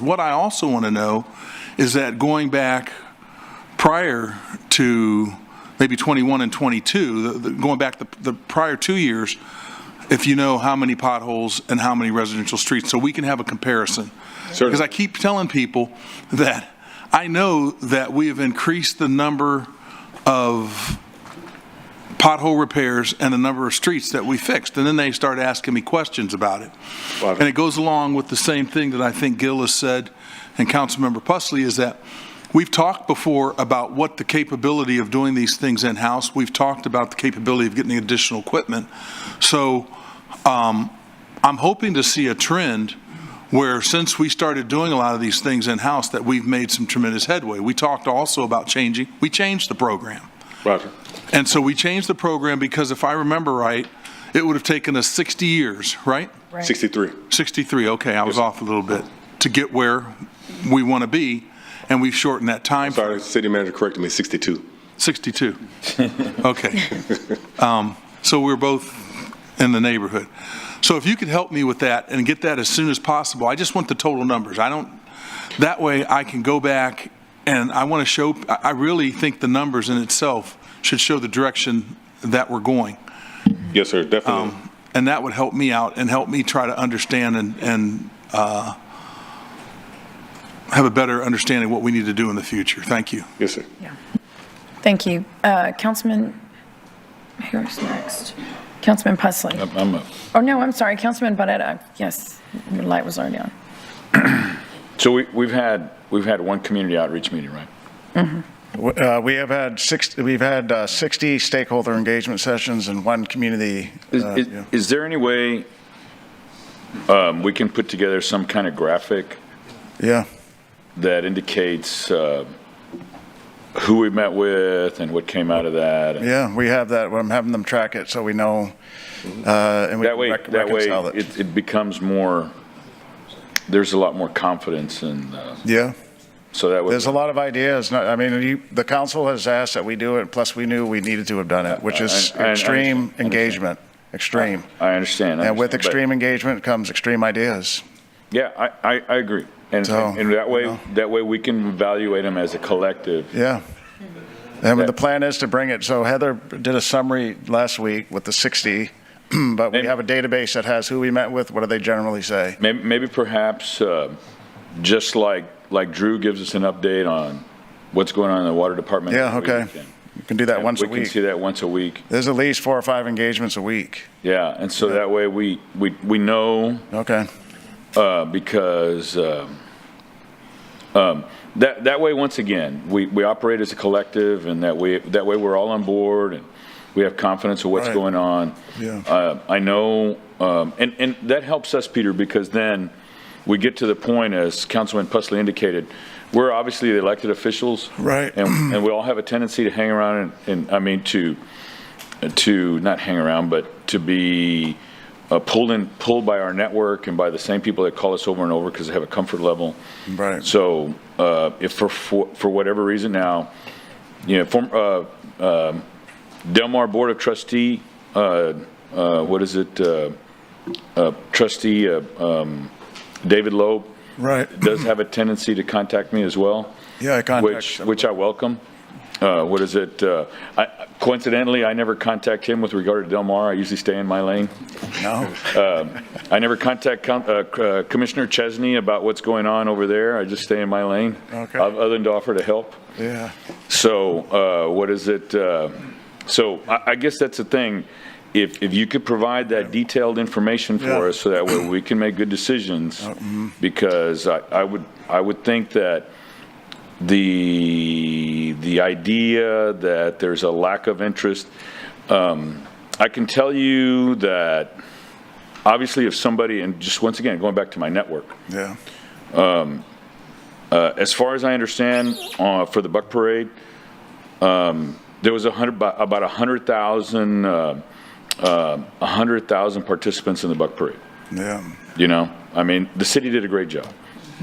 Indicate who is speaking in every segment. Speaker 1: What I also want to know is that going back prior to maybe 21 and 22, the- the- going back the the prior two years, if you know how many potholes and how many residential streets, so we can have a comparison.
Speaker 2: Certainly.
Speaker 1: Because I keep telling people that I know that we have increased the number of pothole repairs and the number of streets that we fixed. And then they start asking me questions about it.
Speaker 2: Wow.
Speaker 1: And it goes along with the same thing that I think Gil has said and Councilmember Pusley is that we've talked before about what the capability of doing these things in-house. We've talked about the capability of getting additional equipment. So um, I'm hoping to see a trend where since we started doing a lot of these things in-house, that we've made some tremendous headway. We talked also about changing, we changed the program.
Speaker 2: Roger.
Speaker 1: And so we changed the program because if I remember right, it would have taken us 60 years, right?
Speaker 3: Right.
Speaker 2: 63.
Speaker 1: 63, okay, I was off a little bit, to get where we want to be, and we've shortened that time.
Speaker 2: Sorry, city manager corrected me, 62.
Speaker 1: 62. Okay. Um, So we're both in the neighborhood. So if you could help me with that and get that as soon as possible, I just want the total numbers. I don't, that way I can go back and I want to show, I I really think the numbers in itself should show the direction that we're going.
Speaker 2: Yes, sir, definitely.
Speaker 1: Um, And that would help me out and help me try to understand and, and uh, have a better understanding of what we need to do in the future. Thank you.
Speaker 2: Yes, sir.
Speaker 3: Thank you. Uh, Councilman, who's next? Councilman Pusley.
Speaker 4: I'm up.
Speaker 3: Oh, no, I'm sorry, Councilman Barrera. Yes, your light was already on.
Speaker 4: So we, we've had, we've had one community outreach meeting, right?
Speaker 5: Uh, We have had six, we've had uh, 60 stakeholder engagement sessions and one community.
Speaker 4: Is,
Speaker 5: uh,
Speaker 4: is-
Speaker 5: yeah.
Speaker 4: is there any way um, we can put together some kind of graphic
Speaker 5: Yeah,
Speaker 4: that indicates uh, who we met with and what came out of that? and-
Speaker 5: yeah, we have that, I'm having them track it so we know, uh, and we
Speaker 4: That
Speaker 5: can
Speaker 4: way,
Speaker 5: rec-
Speaker 4: that way,
Speaker 5: reconcile it.
Speaker 4: it, it becomes more, there's a lot more confidence and, uh,
Speaker 5: Yeah,
Speaker 4: so that would.
Speaker 5: there's a lot of ideas, No, I mean, you- the council has asked that we do it, plus we knew we needed to have done it, which is
Speaker 4: I- I- I
Speaker 5: extreme
Speaker 4: understand.
Speaker 5: engagement, extreme.
Speaker 4: I understand. I
Speaker 5: And
Speaker 4: understand,
Speaker 5: with
Speaker 4: but-
Speaker 5: extreme engagement comes extreme ideas.
Speaker 4: Yeah, I, I, I agree. And,
Speaker 5: So,
Speaker 4: and that
Speaker 5: you
Speaker 4: way,
Speaker 5: know.
Speaker 4: that way we can evaluate them as a collective.
Speaker 5: Yeah. And the plan is to bring it, so Heather did a summary last week with the 60, but we
Speaker 4: And-
Speaker 5: have a database that has who we met with, what do they generally say?
Speaker 4: Maybe, maybe perhaps, uh, just like, like Drew gives us an update on what's going on in the water department.
Speaker 5: Yeah,
Speaker 4: every
Speaker 5: okay.
Speaker 4: weekend.
Speaker 5: You can do that once a
Speaker 4: We can
Speaker 5: week.
Speaker 4: see that once a week.
Speaker 5: There's at least four or five engagements a week.
Speaker 4: Yeah, and so that way we, we, we know,
Speaker 5: Okay.
Speaker 4: uh, because, um, um, that, that way, once again, we, we operate as a collective and that way, that way we're all on board and we have confidence of what's
Speaker 5: Right.
Speaker 4: going on.
Speaker 5: Yeah.
Speaker 4: Uh, I know, um, and, and that helps us, Peter, because then we get to the point, as Councilman Pusley indicated, we're obviously the elected officials.
Speaker 5: Right.
Speaker 4: And, and we all have a tendency to hang around and, and, I mean, to, to not hang around, but to be uh, pulled in, pulled by our network and by the same people that call us over and over because they have a comfort level.
Speaker 5: Right.
Speaker 4: So uh, if for, for for whatever reason now, you know, form, uh, um, Delmar Board of Trustee, uh, uh, what is it? uh, uh, Trustee uh, um, David Loeb
Speaker 5: Right.
Speaker 4: does have a tendency to contact me as well.
Speaker 5: Yeah, I contact
Speaker 4: Which,
Speaker 5: them.
Speaker 4: which I welcome. Uh, What is it? uh, I- Coincidentally, I never contact him with regard to Delmar. I usually stay in my lane. Um,
Speaker 5: No?
Speaker 4: I never contact Com- uh, C- uh, Commissioner Chesney about what's going on over there. I just stay in my lane.
Speaker 5: Okay.
Speaker 4: Other than to offer to help.
Speaker 5: Yeah.
Speaker 4: So uh, what is it? uh, So I I guess that's the thing. If, if you could provide that detailed information for
Speaker 5: Yeah.
Speaker 4: us so that way we can make good decisions, because I I would, I would think that the, the idea that there's a lack of interest, um, I can tell you that, obviously, if somebody, and just once again, going back to my network,
Speaker 5: Yeah.
Speaker 4: uh, as far as I understand, uh, for the Buck Parade, um, there was a hundred, about a hundred thousand, uh, uh, a hundred thousand participants in the Buck Parade.
Speaker 5: Yeah.
Speaker 4: You know, I mean, the city did a great job.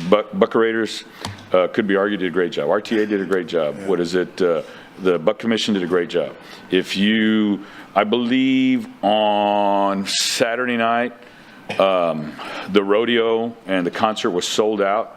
Speaker 4: Buck, Buckarators, uh, could be argued did a great job. RTA did a great job. What is it? Uh, the Buck Commission did a great job. If you, I believe on Saturday night, um, the rodeo and the concert was sold out.